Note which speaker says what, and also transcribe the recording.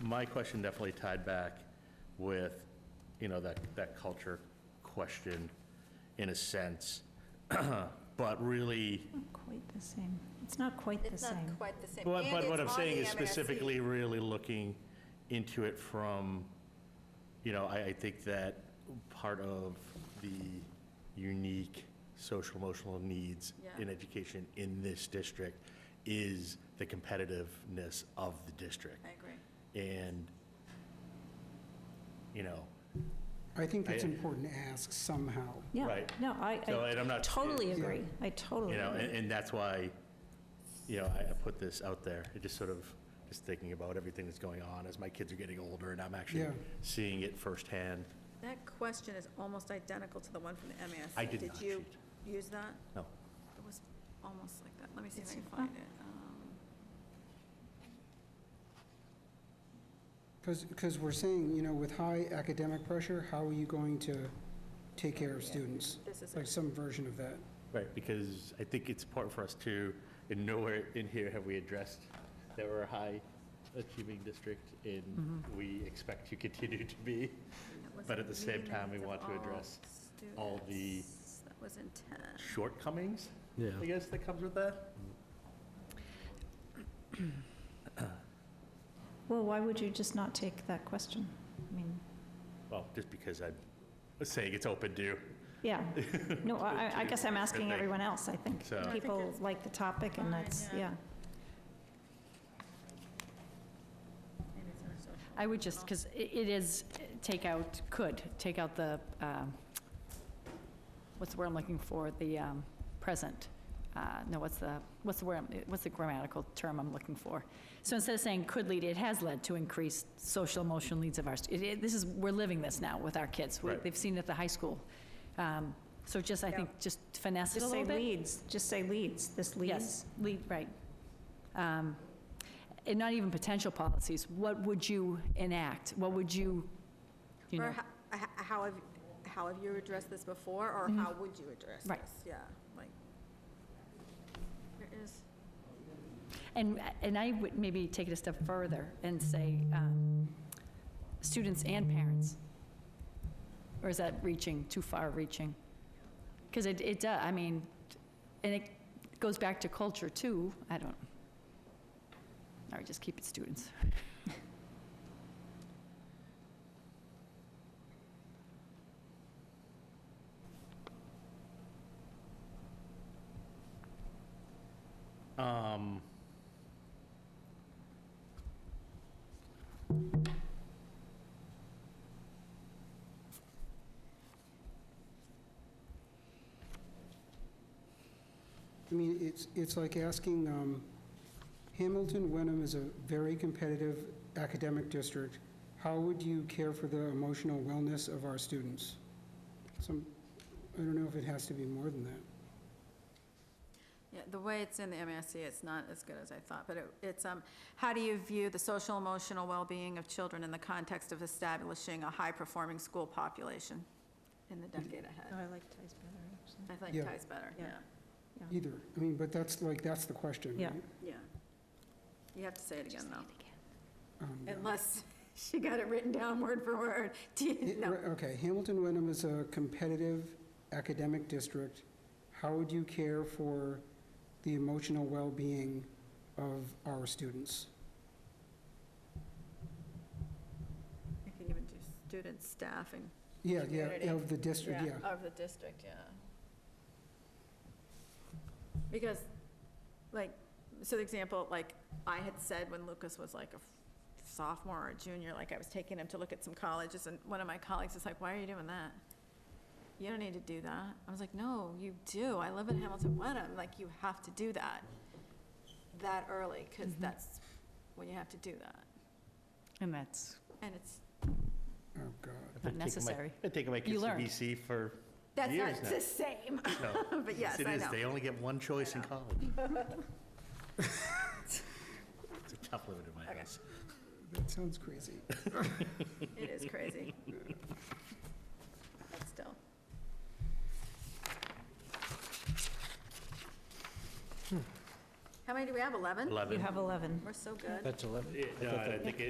Speaker 1: my question definitely tied back with, you know, that, that culture question in a sense. But really,
Speaker 2: Not quite the same. It's not quite the
Speaker 3: It's not
Speaker 2: same.
Speaker 3: quite the same.
Speaker 1: but
Speaker 3: And
Speaker 1: but what I'm
Speaker 3: it's on
Speaker 1: saying
Speaker 3: the
Speaker 1: is
Speaker 3: MRSC.
Speaker 1: specifically really looking into it from, you know, I, I think that part of the unique social emotional needs
Speaker 3: Yeah.
Speaker 1: in education in this district is the competitiveness of the district.
Speaker 3: I agree.
Speaker 1: And, you know,
Speaker 4: I think that's
Speaker 1: I-
Speaker 4: important to ask somehow.
Speaker 2: Yeah,
Speaker 1: Right.
Speaker 2: no, I,
Speaker 1: So, and I'm
Speaker 2: I
Speaker 1: not-
Speaker 2: totally
Speaker 4: Yeah.
Speaker 2: agree. I totally
Speaker 1: you know,
Speaker 2: agree.
Speaker 1: and, and that's why, you know, I, I put this out there. It just sort of, just thinking about everything that's going on as my kids are getting older and I'm actually
Speaker 4: Yeah.
Speaker 1: seeing it firsthand.
Speaker 3: That question is almost identical to the one from the MASC.
Speaker 1: I did not
Speaker 3: you use that?
Speaker 1: No.
Speaker 3: It was almost like that. Let me see if I
Speaker 2: It's-
Speaker 3: can find it. Um,
Speaker 4: Because, we're saying, you know, with high academic pressure, how are you going to take care of students?
Speaker 3: This is
Speaker 4: Like
Speaker 3: it.
Speaker 4: some version of that.
Speaker 1: Right, because I think it's important for us to, and nowhere in here have we addressed that we're a high achieving district and
Speaker 2: Mm-hmm.
Speaker 1: we expect to continue to be.
Speaker 3: That was
Speaker 1: But at the same
Speaker 3: meeting
Speaker 1: time, we
Speaker 3: minutes
Speaker 1: want
Speaker 3: of
Speaker 1: to
Speaker 3: all
Speaker 1: address all the-
Speaker 3: students. That was in 10.
Speaker 1: Shortcomings,
Speaker 5: Yeah.
Speaker 1: I guess, that comes with that?
Speaker 2: Well, why would you just not take that question? I mean,
Speaker 1: Well, just because I'm saying it's open to,
Speaker 2: yeah. No, I, I- I guess I'm asking everyone else, I think.
Speaker 1: So- I
Speaker 3: think
Speaker 2: People
Speaker 3: it's
Speaker 2: like the topic and
Speaker 3: fine,
Speaker 2: that's,
Speaker 3: yeah.
Speaker 2: yeah.
Speaker 3: Maybe it's our social.
Speaker 6: I would just, because it is, take out, could, take out the, um, what's the word I'm looking for, the um, present. Uh, No, what's the, what's the word, I'm- what's the grammatical term I'm looking for? So instead of saying could lead, it has led to increased social emotional needs of our, stu- it- it- this is, we're living this now with our kids. We-
Speaker 1: Right.
Speaker 6: They've seen it at the high school. Um, So just, I think, just finesse it a
Speaker 2: Just say
Speaker 6: little bit.
Speaker 2: leads, just say leads, this leads.
Speaker 6: Yes, lead, right. Um, And not even potential policies, what would you enact? What would you, you
Speaker 3: Or
Speaker 6: know?
Speaker 3: ho- h- how have, how have you addressed this before, or how would you address this?
Speaker 6: Right.
Speaker 3: Yeah, like, there is,
Speaker 6: And, and I would maybe take it a step further and say, um, students and parents. Or is that reaching, too far reaching? Because it, it, does. I mean, and it goes back to culture too, I don't, all right, just keep it students.
Speaker 1: um,
Speaker 4: I mean, it's, it's like asking, um, Hamilton Wenham is a very competitive academic district. How would you care for the emotional wellness of our students? Some, I don't know if it has to be more than that.
Speaker 3: yeah, the way it's in the MASC, it's not as good as I thought, but it- it's, um, how do you view the social emotional well-being of children in the context of establishing a high-performing school population in the decade ahead?
Speaker 2: I like ties better, actually.
Speaker 3: I think
Speaker 4: Yeah.
Speaker 3: ties better, yeah,
Speaker 2: Yeah.
Speaker 4: Either. I mean, but that's like, that's the question,
Speaker 2: Yeah.
Speaker 4: right?
Speaker 3: yeah. You have to say it again, though,
Speaker 4: Um,
Speaker 3: unless she got it written down word for word. Do
Speaker 4: Yeah,
Speaker 3: you- No,
Speaker 4: right, Okay, Hamilton Wenham is a competitive academic district. How would you care for the emotional well-being of our students?
Speaker 3: you can even do students, staff, and
Speaker 4: Yeah,
Speaker 3: Community.
Speaker 4: yeah, of the district, yeah.
Speaker 3: Of the district, yeah. Because, like, so the example, like, I had said when Lucas was like a sophomore or a junior, like, I was taking him to look at some colleges, and one of my colleagues is like, why are you doing that? You don't need to do that. I was like, no, you do. I live in Hamilton Wenham, like, you have to do that that early, because
Speaker 4: Mm-hmm.
Speaker 3: that's when you have to do that.
Speaker 6: And that's,
Speaker 3: And it's,
Speaker 4: Oh, God.
Speaker 1: I've been taking my-
Speaker 6: Unnecessary.
Speaker 1: I've taken my
Speaker 6: You learned.
Speaker 1: KCBC for
Speaker 3: that's
Speaker 1: years
Speaker 3: not
Speaker 1: now.
Speaker 3: the same,
Speaker 1: No.
Speaker 3: but yes,
Speaker 1: it
Speaker 3: I
Speaker 1: is.
Speaker 3: know.
Speaker 1: They only get one choice in
Speaker 3: I know.
Speaker 1: college. it's a tough limit in my
Speaker 3: Okay.
Speaker 1: house.
Speaker 4: That sounds crazy.
Speaker 3: It is crazy. But still. How many do we have? 11?
Speaker 1: Eleven.
Speaker 2: You have 11.
Speaker 3: We're so good.
Speaker 5: That's 11.
Speaker 1: Yeah, no, I think it-